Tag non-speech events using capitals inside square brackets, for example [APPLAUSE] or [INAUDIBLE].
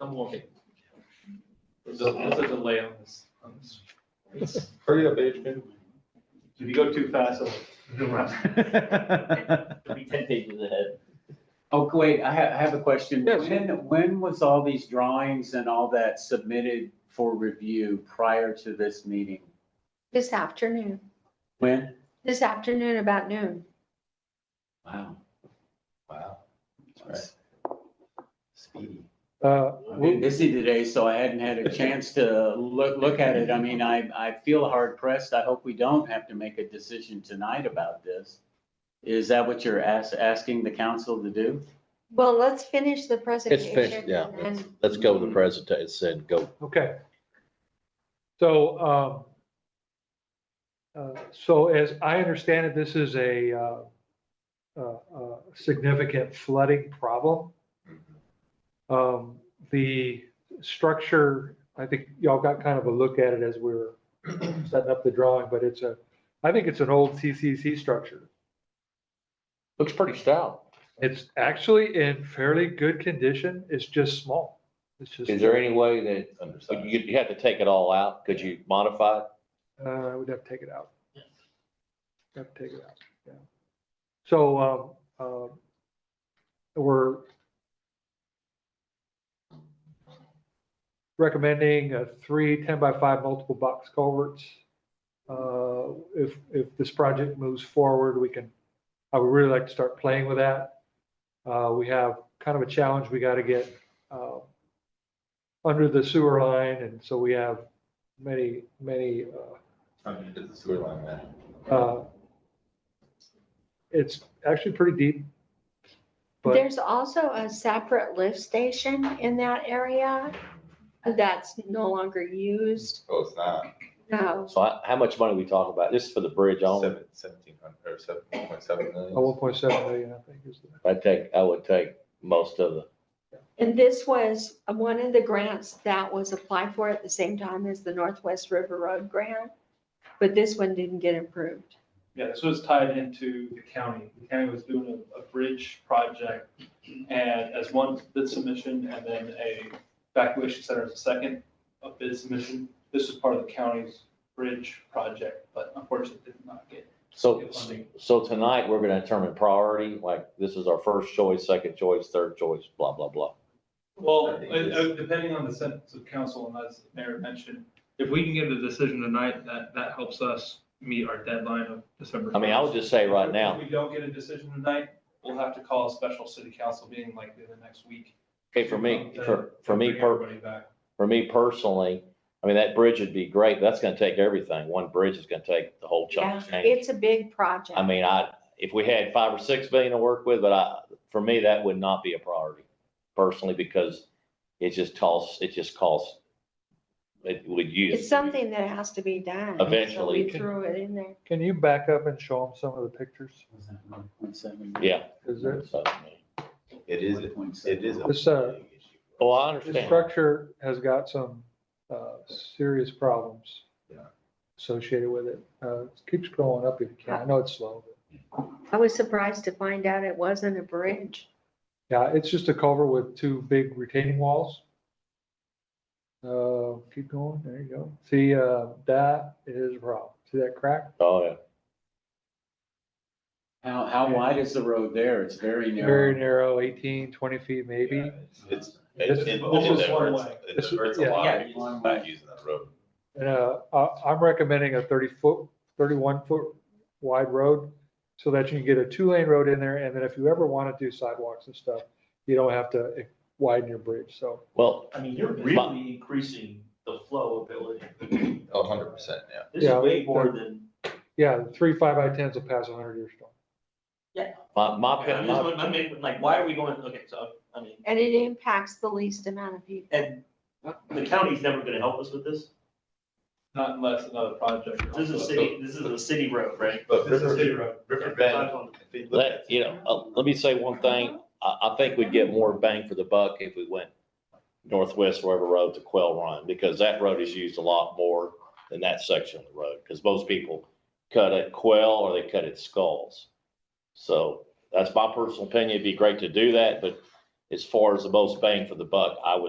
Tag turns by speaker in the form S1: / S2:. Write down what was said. S1: I'm looking. There's a, there's a delay on this, on this. It's-
S2: Hurry up, Adrian.
S1: If you go too fast, it'll, it'll be ten pages ahead.
S3: Oh, wait, I have, I have a question.
S2: Yes.
S3: When, when was all these drawings and all that submitted for review prior to this meeting?
S4: This afternoon,
S3: When?
S4: this afternoon about noon.
S3: Wow. Wow. Speedy.
S2: Uh,
S3: I've
S2: we'll-
S3: been busy today, so I hadn't had a chance to look, look at it. I mean, I, I feel hard pressed. I hope we don't have to make a decision tonight about this. Is that what you're ask, asking the council to do?
S4: Well, let's finish the
S5: It's
S4: presentation.
S5: finished, yeah.
S4: and
S5: Let's-
S4: then-
S5: Let's go with the presentation, it said go.
S2: Okay. So, um, uh, so as I understand it, this is a, uh, uh, uh, significant flooding problem. Um, the structure, I think y'all got kind of a look at it as we were setting up the drawing, but it's a, I think it's an old CCC structure.
S5: Looks pretty stout.
S2: It's actually in fairly good condition. It's just small. It's just.
S5: Is there any way that,
S6: Undersized.
S5: you, you have to take it all out? Could you modify it?
S2: Uh, we'd have to take it out. Have to take it out, yeah. So, um, um, we're recommending a three 10 by five multiple box culverts. Uh, if, if this project moves forward, we can, I would really like to start playing with that. Uh, we have kind of a challenge, we gotta get, uh, under the sewer line, and so we have many, many, uh,
S6: I mean, it's a sewer line, man.
S2: uh, It's actually pretty deep. But
S4: There's also a separate lift station in that area that's no longer used.
S6: Oh, it's not.
S4: No,
S5: So how, how much money we talking about? This is for the bridge only?
S6: Seven, seventeen hundred, or seven, one point seven
S2: a
S6: million.
S2: one point seven million, I think is the,
S5: I take, I would take most of the,
S4: and this was one of the grants that was applied for at the same time as the Northwest River Road grant, but this one didn't get approved.
S1: Yeah, this was tied into the county. The county was doing a, a bridge project and as one bid submission and then a evacuation center as a second a bid submission. This was part of the county's bridge project, but unfortunately did not get
S5: so,
S1: get funding.
S5: so tonight, we're gonna determine priority, like, this is our first choice, second choice, third choice, blah, blah, blah.
S1: Well,
S6: I think
S1: uh,
S6: it's-
S1: uh, depending on the sentence of council, and as the Mayor mentioned, if we can get a decision tonight, that, that helps us meet our deadline of December.
S5: I mean, I would
S1: 1st.
S5: just say right
S1: If-
S5: now,
S1: If we don't get a decision tonight, we'll have to call a special city council meeting likely the next week.
S5: okay, for me,
S1: to-
S5: for,
S1: to
S5: for me,
S1: bring
S5: per,
S1: everybody back.
S5: for me personally, I mean, that bridge would be great, but that's gonna take everything. One bridge is gonna take the whole chunk.
S4: Yeah,
S5: of change.
S4: it's a big project.
S5: I mean, I, if we had five or six billion to work with, but I, for me, that would not be a priority personally, because it just costs, it just costs. It would use.
S4: It's something that has to be done. so
S5: Eventually.
S4: We threw it in there.
S2: can you back up and show them some of the pictures?
S3: Was that 1.7?
S5: Yeah.
S2: Is there,
S5: So,
S6: It is, it is. a
S2: It's, uh,
S6: big issue.
S5: Oh, I
S2: the
S5: understand.
S2: structure has got some, uh, serious problems.
S6: Yeah.
S2: Associated with it. Uh, it keeps going up if you can. I know it's slow. but-
S4: I was surprised to find out it wasn't a bridge.
S2: Yeah, it's just a culvert with two big retaining walls. Uh, keep going, there you go. See, uh, that is a problem. See that crack?
S5: Oh, yeah.
S3: How, how wide is the road there? It's very
S2: Very
S3: narrow.
S2: narrow, 18, 20 feet maybe.
S6: Yeah, It's,
S2: This-
S6: it's, it- it
S1: this is one
S6: hurts,
S1: way.
S6: it
S2: This is-
S6: hurts a
S2: yeah.
S6: lot,
S3: Yeah,
S6: it's
S3: one
S6: not
S3: way.
S6: using that road.
S2: And, uh, I, I'm recommending a 30 foot, 31 foot wide road so that you can get a two lane road in there. And then if you ever want to do sidewalks and stuff, you don't have to widen your bridge. So
S5: Well,
S7: I mean, you're
S5: But-
S7: really increasing the flow ability.
S6: [CLEARS THROAT] A hundred percent, yeah.
S7: This
S2: Yeah,
S7: is way
S2: that-
S7: more than,
S2: yeah, three five by tens will pass a hundred year storm.
S5: my, my,
S7: I
S5: opinion-
S7: just
S5: my,
S7: want- I mean, like, why are we going, okay, so, I mean,
S4: And it impacts the least amount of people.
S7: and the county's never gonna help us with this.
S1: Not unless another project.
S7: This is a city, this is a city road, right?
S6: But
S1: This is
S6: River,
S1: city road.
S6: River
S7: That's
S6: Bend,
S7: on-
S6: if you look
S5: let,
S6: at,
S5: you know, uh, let me say one thing. I, I think we'd get more bang for the buck if we went northwest wherever road to Quail Run, because that road is used a lot more than that section of the road, because most people cut at Quail or they cut at Skulls. So that's my personal opinion. It'd be great to do that, but as far as the most bang for the buck, I would